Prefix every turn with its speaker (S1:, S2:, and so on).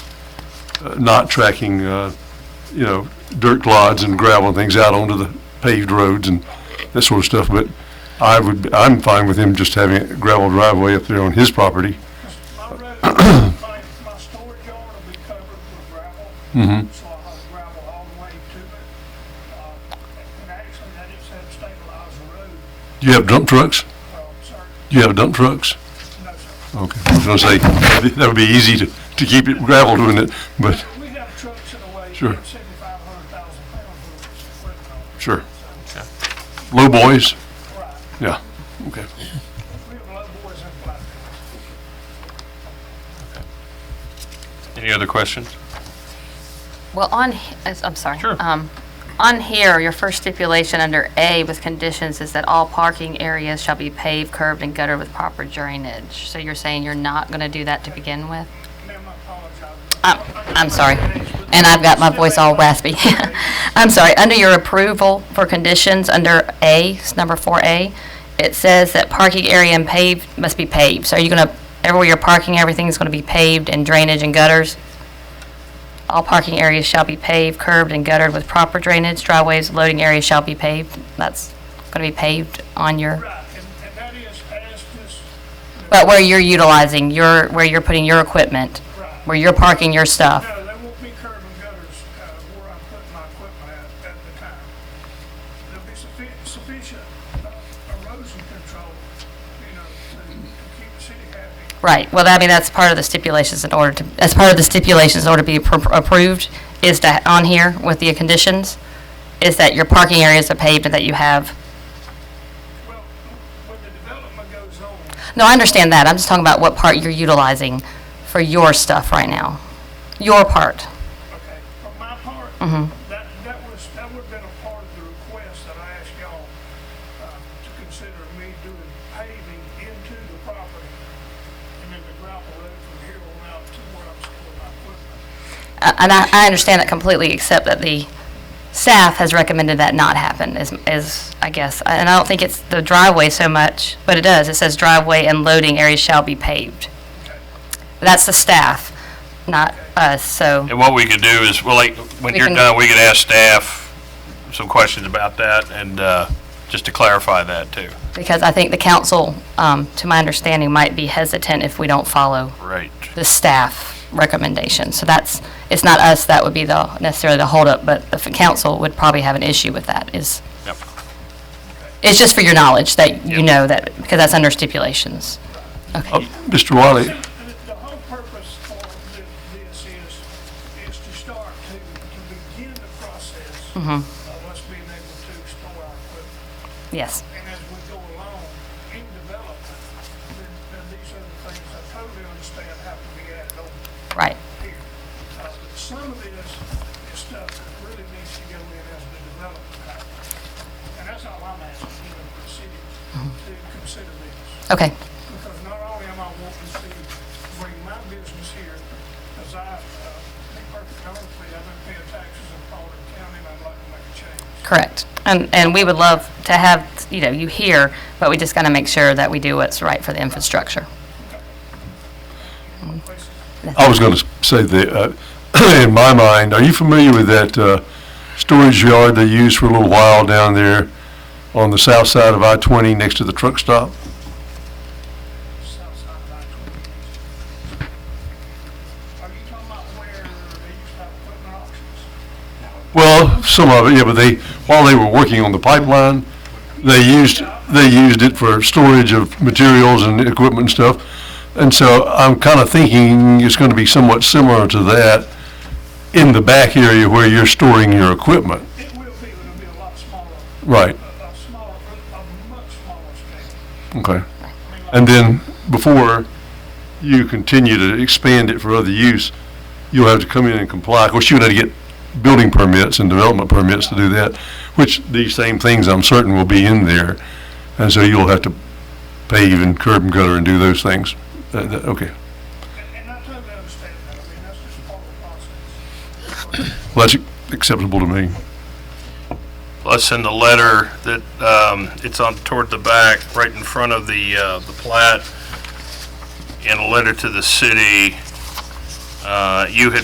S1: uh, not tracking, uh, you know, dirt clods and gravel and things out onto the paved roads and that sort of stuff, but I would, I'm fine with him just having a gravel driveway up there on his property.
S2: My red- my, my storage yard will be covered with gravel.
S1: Mhm.
S2: So I'll have gravel all the way to it. Uh, And actually, I just had to stabilize the road,
S1: Do you have dump trucks?
S2: um, sir,
S1: Do you have dump trucks?
S2: no, sir.
S1: Okay, I was gonna say, that would be easy to, to keep it gravel doing it, but,
S2: We have trucks in the way,
S1: Sure.
S2: seventy-five hundred thousand pounds worth of equipment on it.
S1: sure. Low boys,
S2: Right,
S1: yeah, okay.
S2: we have low boys in Flatbed.
S3: Any other questions?
S4: Well, on, he- as- I'm sorry.
S3: Sure.
S4: Um, On here, your first stipulation under A with conditions is that all parking areas shall be paved, curbed, and guttered with proper drainage. So you're saying you're not going to do that to begin with?
S2: Ma'am, I apologize.
S4: I'm Uh, I'm sorry. And I've got my voice all raspy. I'm sorry. Under your approval for conditions, under A, it's number 4A, it says that parking area and paved must be paved. So are you going to, everywhere you're parking, everything's going to be paved and drainage and gutters? All parking areas shall be paved, curbed, and guttered with proper drainage. Driveways, loading areas shall be paved. That's going to be paved on your,
S2: Right, and, and that is as this,
S4: but where you're utilizing your, where you're putting your equipment,
S2: right.
S4: where you're parking your stuff.
S2: No, there won't be curb and gutters, uh, where I put my equipment at, at the time. There'll be sufficient, sufficient uh, erosion control, you know, to, to keep the city happy.
S4: Right, well, I mean, that's part of the stipulations in order to, that's part of the stipulations in order to be appro- approved, is to, on here with the conditions, is that your parking areas are paved and that you have,
S2: Well, when the development goes on,
S4: no, I understand that, I'm just talking about what part you're utilizing for your stuff right now, your part.
S2: okay, for my part, that, that was, that would've been a part of the request that I asked y'all, uh, to consider me doing paving into the property, and then the gravel road from here on out to where I'm storing my equipment.
S4: Uh, And I, I understand that completely, except that the staff has recommended that not happen, is, is, I guess, and I don't think it's the driveway so much, but it does, it says driveway and loading areas shall be paved. That's the staff, not us, so,
S3: And what we could do is, well, like, when
S4: We
S3: you're
S4: can-
S3: done, we could ask staff some questions about that and, uh, just to clarify that too.
S4: because I think the council, um, to my understanding, might be hesitant if we don't follow
S3: Right.
S4: the staff recommendation. So that's, it's not us that would be the, necessarily the holdup, but the f- council would probably have an issue with that, is
S3: Yep.
S4: It's just for your knowledge that you
S3: Yep.
S4: know that, because that's under stipulations.
S1: Uh, Mr. Wiley,
S2: The the whole purpose for thi- this is, is to start to, to begin the process of us being able to store our equipment.
S4: Yes.
S2: And as we go along in development, then, then these are the things I totally understand have to be added over
S4: Right.
S2: here. Uh, but Some of this is stuff that really needs to go in as the development happens. And that's all I'm asking, you know, for the city to consider this
S4: Okay.
S2: because not only am I wanting to bring my business here, because I, uh, to be perfectly honest with you, I've been paying taxes in Pollard County, and I'd like to make a change.
S4: Correct. And, and we would love to have, you know, you here, but we just got to make sure that we do what's right for the infrastructure.
S2: Places
S1: I was gonna say that, uh, in my mind, are you familiar with that, uh, storage yard they used for a little while down there on the south side of I-20 next to the truck stop?
S2: south side of I-20. Are you talking about where they used to have equipment auctions?
S1: Well, some of it, yeah, but they, while they were working on the pipeline, they used, they used it for storage of materials and equipment and stuff. And so I'm kind of thinking it's going to be somewhat similar to that in the back area where you're storing your equipment.
S2: It will be, but it'll be a lot smaller,
S1: Right,
S2: a a smaller, a much smaller scale.
S1: okay. And then before you continue to expand it for other use, you'll have to come in and comply. Of course, you would have to get building permits and development permits to do that, which these same things, I'm certain, will be in there. And so you'll have to pave and curb and gutter and do those things. Uh, that- Okay.
S2: And and I totally understand that, I mean, that's just part of the process.
S1: Well, that's acceptable to me.
S3: Plus in the letter that, um, it's on toward the back, right in front of the, uh, the plat, in a letter to the city, uh, you had